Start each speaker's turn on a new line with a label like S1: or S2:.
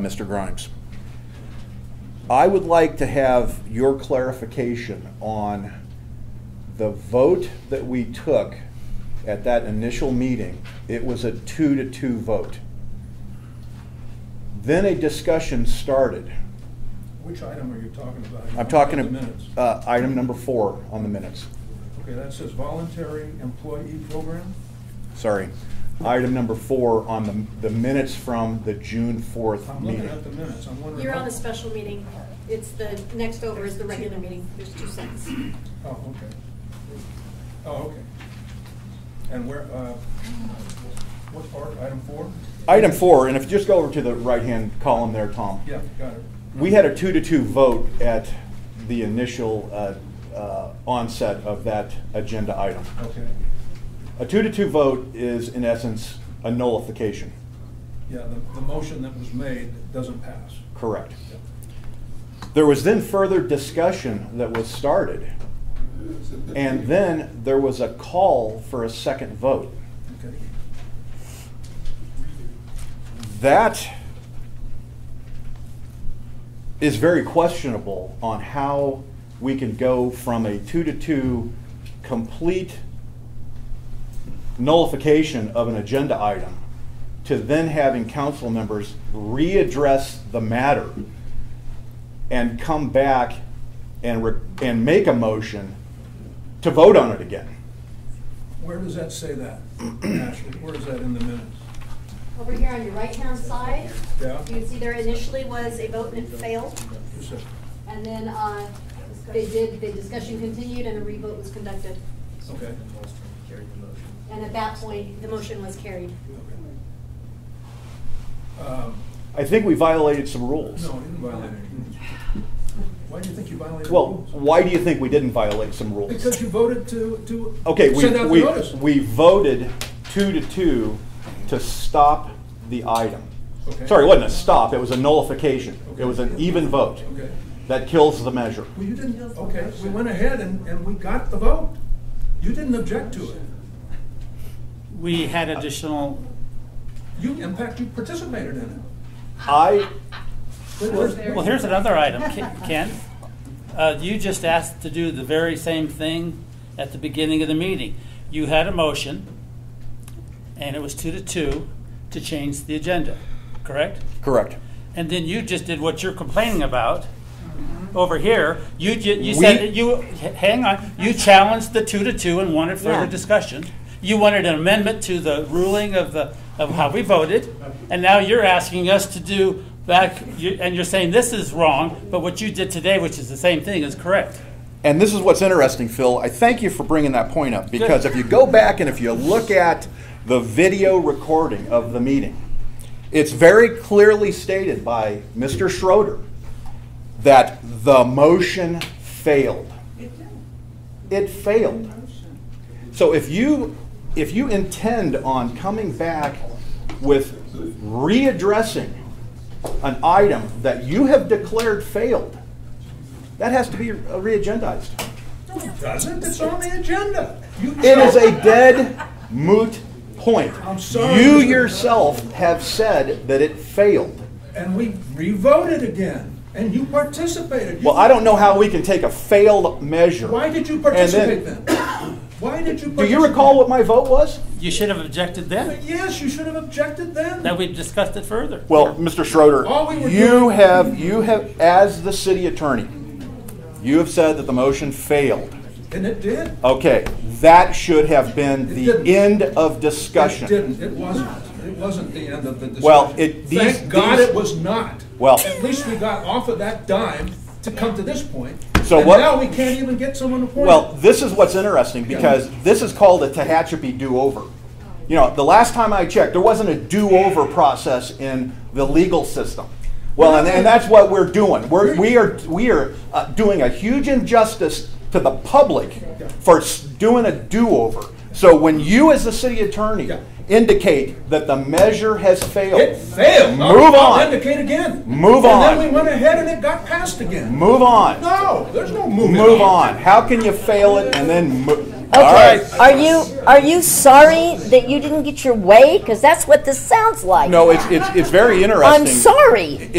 S1: Mr. Grimes. I would like to have your clarification on the vote that we took at that initial meeting. It was a two to two vote. Then a discussion started.
S2: Which item are you talking about?
S1: I'm talking uh,
S2: The minutes.
S1: about item number four on the minutes.
S2: Okay, that says voluntary employee program?
S1: Sorry. Item number four on the, the minutes from the June 4th
S2: I'm looking
S1: meeting.
S2: at the minutes, I'm wondering.
S3: You're on
S2: how-
S3: the special meeting. It's the, next over is the regular meeting. There's two sets.
S2: Oh, okay. Oh, okay. And where, uh, what part, item four?
S1: Item four, and if you just go over to the right-hand column there, Tom.
S2: Yeah, got it.
S1: We had a two to two vote at the initial uh, uh, onset of that agenda item.
S2: Okay.
S1: A two to two vote is, in essence, a nullification.
S2: Yeah, the, the motion that was made doesn't pass.
S1: Correct.
S2: Yeah.
S1: There was then further discussion that was started, and then there was a call for a second vote.
S2: Okay.
S1: That is very questionable on how we can go from a two to two complete nullification of an agenda item to then having council members readdress the matter and come back and, re- and make a motion to vote on it again.
S2: Where does that say that, Ashley? Where is that in the minutes?
S3: Over here on your right-hand side,
S2: Yeah.
S3: you can see there initially was a vote and it failed.
S2: Is it-
S3: And then uh, they did, the discussion continued and a revote was conducted.
S2: Okay.
S3: And at that point, the motion was carried.
S2: Okay. Um,
S1: I think we violated some rules.
S2: No, I didn't violate any rules. Why do you think you violated
S1: Well,
S2: rules?
S1: why do you think we didn't violate some rules?
S2: Because you voted to, to.
S1: Okay, we,
S2: Send out the
S1: we,
S2: notice.
S1: we voted two to two to stop the item.
S2: Okay.
S1: Sorry, it wasn't a stop, it was a nullification. It
S2: Okay.
S1: was an even vote.
S2: Okay.
S1: That kills the measure.
S2: Well, you didn't, okay, we went ahead and, and we got the vote. You didn't object to it.
S4: We had additional,
S2: You, in fact, you participated in it.
S1: I,
S4: well, here's another item, Ken- Ken. Uh, You just asked to do the very same thing at the beginning of the meeting. You had a motion, and it was two to two to change the agenda, correct?
S1: correct.
S4: And then you just did what you're complaining about over here. You, ju-
S1: We-
S4: you said, that you, h- hang on, you challenged the two to two and wanted further
S5: Yeah.
S4: discussion. You wanted an amendment to the ruling of the, of how we voted, and now you're asking us to do back, you- and you're saying this is wrong, but what you did today, which is the same thing, is correct.
S1: And this is what's interesting, Phil. I thank you for bringing that point up because if you go back and if you look at the video recording of the meeting, it's very clearly stated by Mr. Schroeder that the motion failed. It failed. So if you, if you intend on coming back with readdressing an item that you have declared failed, that has to be uh, re-agendized.
S2: No, it doesn't, it's on the agenda. You-
S1: It is a dead moot point.
S2: I'm sorry.
S1: You yourself have said that it failed.
S2: And we re-voted again, and you participated. You-
S1: Well, I don't know how we can take a failed measure.
S2: Why did you
S1: and
S2: participate then? Why did you?
S1: Do you recall what my vote was?
S4: You should have objected
S2: participate?
S4: then,
S2: Yes, you should have objected then.
S4: that we discussed it further.
S1: Well, Mr. Schroeder,
S2: All we were
S1: you
S2: doing-
S1: have, you have, as the city attorney, you have said that the motion failed.
S2: And it did.
S1: Okay, that should have been
S2: It
S1: the
S2: didn't.
S1: end of
S2: It
S1: discussion.
S2: didn't, it wasn't, it wasn't the end of the discussion.
S1: Well, it- these-
S2: Thank God
S1: these-
S2: it was not.
S1: Well-
S2: At least we got off of that dime to come to this point.
S1: So what-
S2: And now we can't even get someone appointed.
S1: Well, this is what's interesting because this is called a Tehachapi do-over. You know, the last time I checked, there wasn't a do-over process in the legal system. Well, and, and that's what we're doing. We're, we are, we are uh, doing a huge injustice to the public for s- doing a do-over. So when you, as the city attorney,
S2: Yeah.
S1: indicate that the measure has failed,
S2: It failed. I'll-
S1: Move
S2: I'll
S1: on.
S2: Indicate again.
S1: Move
S2: And
S1: on.
S2: then we went ahead and it got passed again.
S1: move on,
S2: No, there's no moving.
S1: move on. How can you fail it and then mo-
S5: Okay,
S1: right.
S5: are you, are you sorry that you didn't get your way? Because that's what this sounds like.
S1: No, it's, it's, it's very interesting.
S5: I'm sorry.